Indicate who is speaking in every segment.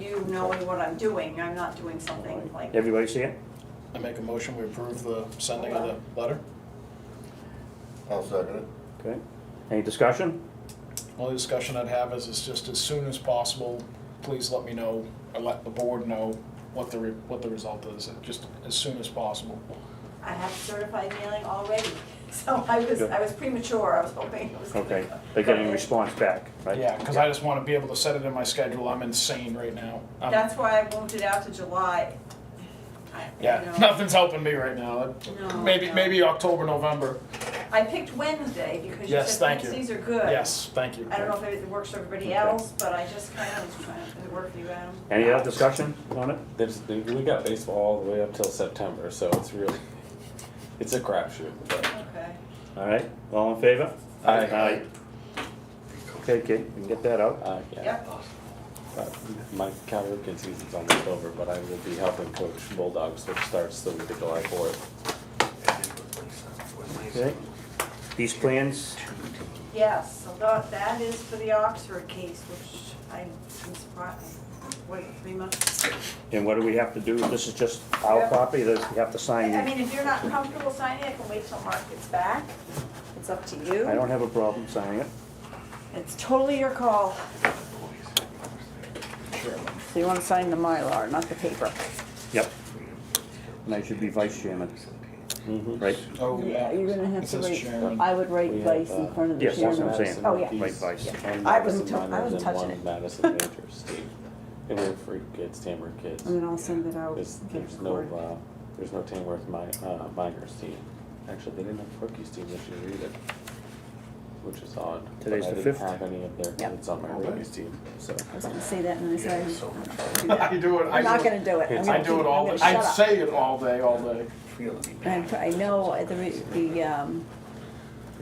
Speaker 1: you knowing what I'm doing, I'm not doing something like,
Speaker 2: Everybody see it?
Speaker 3: I make a motion, we approve the sending of the letter.
Speaker 4: I'll second it.
Speaker 2: Okay. Any discussion?
Speaker 3: Only discussion I'd have is, it's just as soon as possible, please let me know, or let the board know what the, re- what the result is, just as soon as possible.
Speaker 1: I have certified mailing already. So I was, I was premature, I was hoping it was gonna
Speaker 2: Okay,
Speaker 1: go-
Speaker 2: they're getting
Speaker 1: go
Speaker 2: a
Speaker 1: in.
Speaker 2: response back, right?
Speaker 3: Yeah, because I just want to be able to set it in my schedule, I'm insane right now. I'm-
Speaker 1: That's why I moved it out to July. I- you
Speaker 3: Yeah,
Speaker 1: know,
Speaker 3: nothing's helping me right now,
Speaker 1: No,
Speaker 3: maybe,
Speaker 1: no.
Speaker 3: maybe October, November,
Speaker 1: I picked Wednesday because you said
Speaker 3: Yes, thank you.
Speaker 1: Wednesdays are good.
Speaker 3: yes, thank you.
Speaker 1: I don't know if it works for everybody
Speaker 2: Okay.
Speaker 1: else, but I just kind of was trying, to- does it work for you, Adam?
Speaker 2: Any other discussion on it?
Speaker 5: There's, we got baseball all the way up till September, so it's really, it's a crapshoot. but-
Speaker 1: Okay.
Speaker 2: All right, all in favor?
Speaker 5: Aye.
Speaker 2: Aye. Okay, Kate, we can get that out.
Speaker 5: Uh, yeah,
Speaker 1: Yep,
Speaker 5: uh, my Calvert season's almost over, but I will be helping coach Bulldogs, which starts the week of July fourth.
Speaker 2: Okay. These plans,
Speaker 1: yes, so that, that is for the Oxford case, which I'm I'm surprised, wait, three months?
Speaker 2: and what do we have to do? This is just our
Speaker 1: Yeah.
Speaker 2: copy, that we have to sign?
Speaker 1: I mean, if you're not comfortable signing, I can wait till Mark gets back, it's up to you.
Speaker 2: I don't have a problem signing it.
Speaker 1: It's totally your call.
Speaker 6: So you want to sign the Mylar, not the paper.
Speaker 2: Yep. And I should be vice chairman, right?
Speaker 3: Oh,
Speaker 6: Yeah, you're gonna
Speaker 3: It
Speaker 6: have to
Speaker 3: says
Speaker 6: write,
Speaker 3: chairman.
Speaker 6: I would write
Speaker 5: We have,
Speaker 6: vice
Speaker 5: uh,
Speaker 6: in front of the
Speaker 2: Yes, that's what
Speaker 6: chairman.
Speaker 2: I'm saying.
Speaker 6: Oh, yeah.
Speaker 2: Right, vice.
Speaker 5: One
Speaker 6: I
Speaker 5: Madison
Speaker 6: wasn't tou- I
Speaker 5: minors
Speaker 6: wasn't
Speaker 5: and
Speaker 6: touching
Speaker 5: one
Speaker 6: it.
Speaker 5: Madison majors, Steve. And we have three kids, Tamworth kids.
Speaker 6: And then I'll send it out.
Speaker 5: There's,
Speaker 6: get
Speaker 5: there's
Speaker 6: it
Speaker 5: no,
Speaker 6: recorded.
Speaker 5: uh, there's no Tamworth mi- uh, minors team. Actually, they didn't have rookies team this year either, which is odd. but
Speaker 2: Today's
Speaker 5: I
Speaker 2: the
Speaker 5: didn't
Speaker 2: fifth.
Speaker 5: Have any of their
Speaker 6: Yep.
Speaker 5: kids on my rookies team, so.
Speaker 6: I was gonna say that and I said, I'm not
Speaker 3: I
Speaker 6: gonna do
Speaker 3: do it,
Speaker 6: that. I'm
Speaker 3: I
Speaker 6: not
Speaker 3: do it,
Speaker 6: gonna do it. I'm
Speaker 3: I
Speaker 6: gonna
Speaker 3: do
Speaker 6: keep-
Speaker 3: it all,
Speaker 6: I'm
Speaker 3: day.
Speaker 6: gonna
Speaker 3: I
Speaker 6: shut up.
Speaker 3: say it all day, all day.
Speaker 6: And I know at the, re- the, um,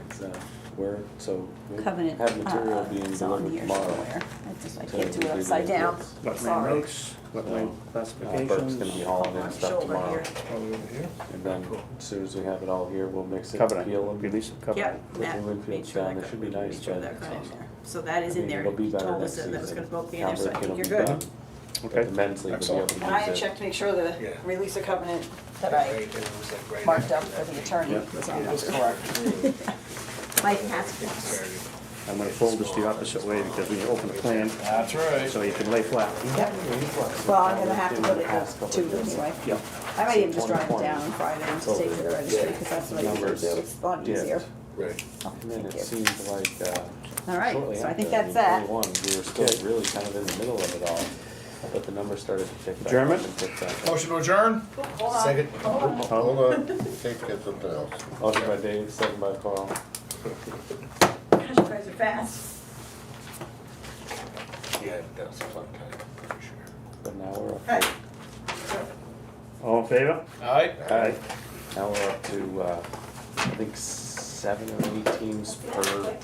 Speaker 5: It's, uh, where, so. we
Speaker 6: covenant,
Speaker 5: Have material
Speaker 6: uh,
Speaker 5: being
Speaker 6: is on
Speaker 5: delivered
Speaker 6: here
Speaker 5: tomorrow.
Speaker 6: somewhere. I just, I
Speaker 5: to
Speaker 6: can't do
Speaker 5: the
Speaker 6: it upside down.
Speaker 5: kids.
Speaker 2: Wetland
Speaker 6: Sorry.
Speaker 2: notes, wetland
Speaker 5: Uh, Burke's gonna be
Speaker 2: classifications.
Speaker 5: hauling
Speaker 1: My
Speaker 5: in stuff
Speaker 1: shoulder
Speaker 5: tomorrow,
Speaker 1: here.
Speaker 3: Probably over here.
Speaker 5: and then as soon as we have it all here, we'll mix it, peel
Speaker 2: Covenant,
Speaker 5: them.
Speaker 2: release of covenant.
Speaker 5: Put the Winfield down, it should be nice,
Speaker 1: Make sure
Speaker 5: but-
Speaker 1: that got in there. So that is
Speaker 5: I
Speaker 1: in
Speaker 5: mean,
Speaker 1: there.
Speaker 5: it'll be
Speaker 1: He
Speaker 5: better
Speaker 1: told us
Speaker 5: next
Speaker 1: that that was
Speaker 5: season.
Speaker 1: gonna both be in there, so I
Speaker 5: Calvert
Speaker 1: think
Speaker 5: kid'll
Speaker 1: you're good.
Speaker 5: be done, uh, but
Speaker 2: Okay,
Speaker 5: The men's league will be able to
Speaker 3: Excellent.
Speaker 5: use it.
Speaker 1: I had checked to make sure
Speaker 4: Yeah.
Speaker 1: the release of covenant that I
Speaker 4: I
Speaker 6: Marked up for the attorney was on
Speaker 3: That's
Speaker 6: that.
Speaker 3: correct.
Speaker 6: My passport.
Speaker 2: I'm gonna fold this the opposite way because when you open the plan,
Speaker 3: That's right.
Speaker 2: so you can lay flat.
Speaker 6: Yep. Well, I'm gonna have to put it up to anyway.
Speaker 2: Yeah.
Speaker 6: I might even just drive it down on Friday and just take it to the registry, because that's what I usually do, it's a lot
Speaker 5: Yeah.
Speaker 6: easier.
Speaker 4: Right.
Speaker 6: Oh,
Speaker 5: And then it
Speaker 6: thank you.
Speaker 5: seemed like, uh.
Speaker 6: All right,
Speaker 5: shortly
Speaker 6: so I
Speaker 5: after
Speaker 6: think that's that.
Speaker 5: 1941, We were still really kind of in the middle of it all, but the numbers started to tick back. up
Speaker 2: German?
Speaker 5: and tick back up.
Speaker 3: Motion to adjourn?
Speaker 1: Hold on.
Speaker 4: Second.
Speaker 1: Hold on.
Speaker 4: Hold on, Take that something else.
Speaker 5: Motion Oh, by Dave, second by Carl.
Speaker 1: Gosh, you guys are fast.
Speaker 4: Yeah, that was a fun time, I'm pretty sure.
Speaker 5: But now we're up,
Speaker 1: Right.
Speaker 2: All in favor?
Speaker 3: All right.
Speaker 2: Aye.
Speaker 5: now we're up to, uh, I think seven or eight teams per,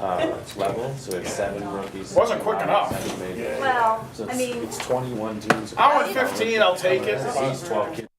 Speaker 5: uh, level, so it's seven rookies.
Speaker 3: Wasn't quick enough.
Speaker 5: seven majors.
Speaker 1: Well,
Speaker 5: So
Speaker 1: I
Speaker 5: it's,
Speaker 1: mean,
Speaker 5: it's twenty-one teams.
Speaker 3: I want 15, I'll take it.
Speaker 5: These twelve kids.